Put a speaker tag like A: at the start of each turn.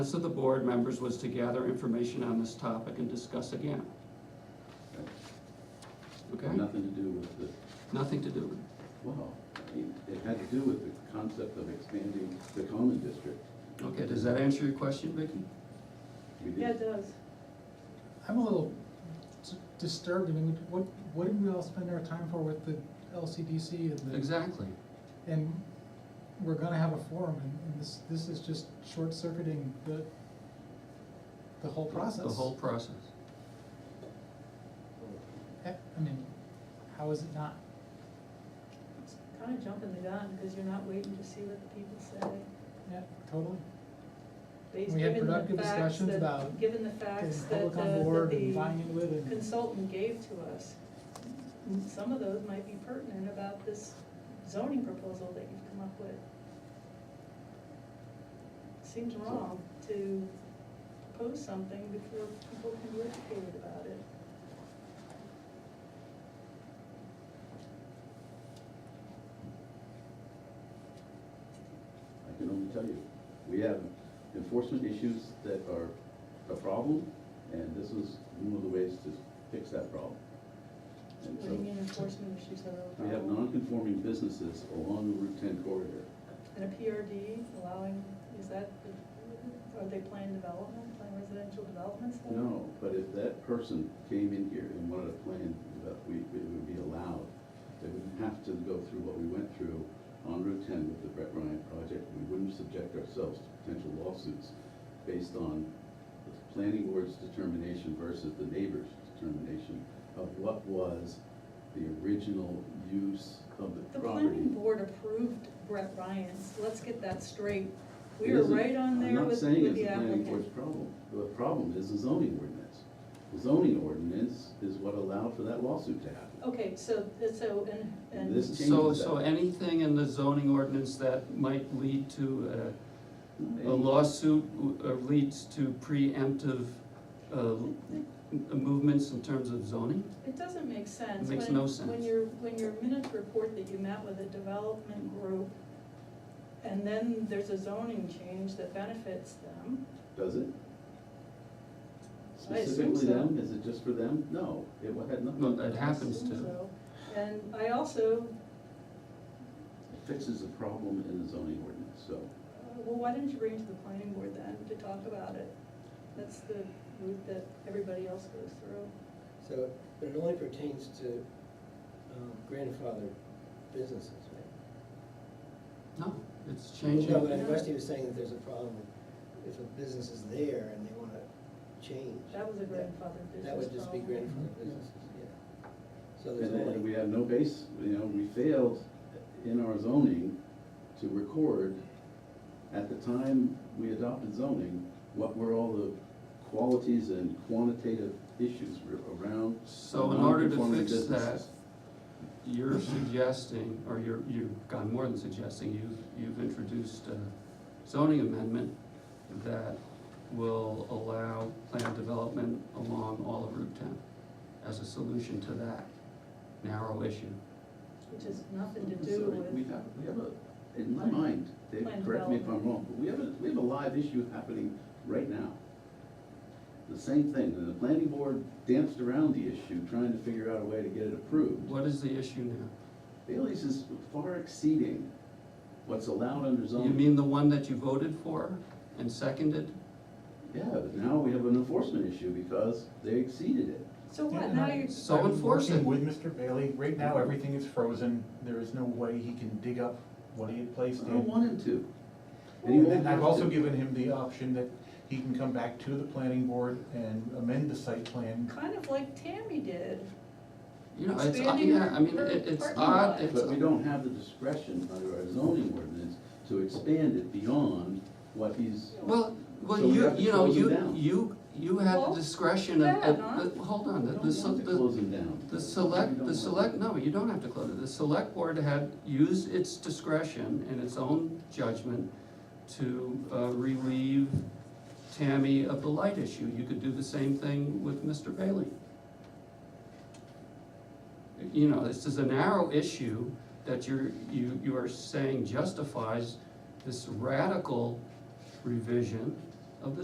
A: This of the board members was to gather information on this topic and discuss again. Okay?
B: Nothing to do with the,
A: Nothing to do with it.
B: well, I mean, it had to do with the concept of expanding the common district.
A: Okay, does that answer your question, Vicki?
B: We
C: Yeah,
B: did,
C: it does.
D: I'm a little s- disturbed, I mean, what, what did we all spend our time for with the LCDC and the,
A: Exactly.
D: and we're gonna have a forum, and, and this, this is just short-circuiting the, the whole process.
A: The whole process.
D: Eh, I mean, how is it not?
C: It's kind of jumping the gun because you're not waiting to see what the people say.
D: Yeah, totally.
C: Based-
D: We had
C: given the
D: productive
C: facts
D: discussions
C: that-
D: about
C: Given the facts
D: Getting
C: that
D: public
C: the-
D: on
C: that
D: board and
C: the
D: buying into it and,
C: consultant gave to us, m- some of those might be pertinent about this zoning proposal that you've come up with. Seems wrong to propose something before people can be educated about it.
B: I can only tell you, we have enforcement issues that are a problem, and this is one of the ways to fix that problem. And
C: What do you
B: so,
C: mean enforcement issues are a
B: we have
C: problem?
B: non-conforming businesses along the Route ten corridor.
C: And a PRD allowing, is that, are they planned development, planned residential developments then?
B: No, but if that person came in here and wanted a plan, that we, we would be allowed, they wouldn't have to go through what we went through on Route ten with the Brett Ryan project, we wouldn't subject ourselves to potential lawsuits based on the planning board's determination versus the neighbor's determination of what was the original use of
C: The
B: the property.
C: planning board approved Brett Ryan's, let's get that straight. We
B: It
C: were
B: isn't-
C: right on there with,
B: I'm not saying
C: with
B: it's
C: the
B: the planning board's
C: applicant.
B: problem, the problem is the zoning ordinance. The zoning ordinance is what allowed for that lawsuit to happen.
C: Okay, so, so, and, and.
B: This-
A: So,
B: Changes that.
A: so anything in the zoning ordinance that might lead to uh, a lawsuit uh, leads to preemptive uh, movements in terms of zoning?
C: It doesn't make sense.
A: It makes
C: when-
A: no
C: When
A: sense.
C: your, when your minutes report that you met with a development group, and then there's a zoning change that benefits them,
B: Does it?
C: I assume
B: Specifically
C: so.
B: them, is it just for them? No, it had nothing.
A: No, that happens
C: assume
A: to.
C: so. And I also
B: It Fixes a problem in the zoning ordinance, so
C: Uh, Well, why didn't you bring it to the planning board then to talk about it? That's the route that everybody else goes through.
E: So, but it only pertains to um, grandfathered businesses, right?
A: No, it's changing.
E: No, but Rusty was saying that there's a problem if a business is there and they wanna change.
C: That was a grandfather
E: That-
C: business.
E: That would just be
C: problem.
E: grandfathered businesses, yeah. So there's
B: And then we
E: only,
B: have no base, you know, we failed in our zoning to record, at the time we adopted zoning, what were all the qualities and quantitative issues were around.
A: So in order to
B: non-conforming
A: fix that,
B: businesses.
A: you're suggesting, or you're, you've gone more than suggesting, you've, you've introduced a zoning amendment that will allow planned development along all of Route ten as a solution to that narrow issue.
C: Which has nothing to
B: So
C: do
B: We
C: with,
B: have, we have a, in my mind, Dave,
C: Plan
B: correct me if I'm wrong, but we have a, we have a live issue happening right now. The same thing, and the planning board danced around the issue, trying to figure out a way to get it approved.
A: What is the issue now?
B: Bailey's is far exceeding what's allowed under
A: You
B: zoning.
A: mean the one that you voted for and seconded?
B: Yeah, but now we have an enforcement issue because they exceeded it.
C: so what,
F: Yeah,
C: now
F: no,
C: you're,
A: So
F: I'm
A: enforce it.
F: working With Mr. Bailey, right now, everything is frozen, there is no way he can dig up what he had placed
B: I don't
F: in.
B: want him to. And he
F: And
B: won't
F: then
B: have
F: I've also
B: to.
F: given him the option that he can come back to the planning board and amend the site plan.
C: kind of like Tammy did.
A: You know, it's,
C: Expanding
A: yeah, I mean,
C: her
A: it- it's
C: parking lot.
A: odd, it's.
B: But we don't have the discretion under our zoning ordinance to expand it beyond what he's.
A: Well, well,
B: So we
A: you,
B: have to
A: you know,
B: close them
A: you,
B: down.
A: you, you have the
C: Well,
A: discretion
C: yeah,
A: of,
C: huh?
A: of- the- hold on,
B: I
A: the,
B: don't
A: the, so-
B: want to
A: the,
B: close him down.
A: the
B: We
A: select,
B: don't
A: the
B: want
A: select,
B: to.
A: no, you don't have to close it, the select board had used its discretion and its own judgment to uh, relieve Tammy of the light issue, you could do the same thing with Mr. Bailey. You know, this is a narrow issue that you're, you, you are saying justifies this radical revision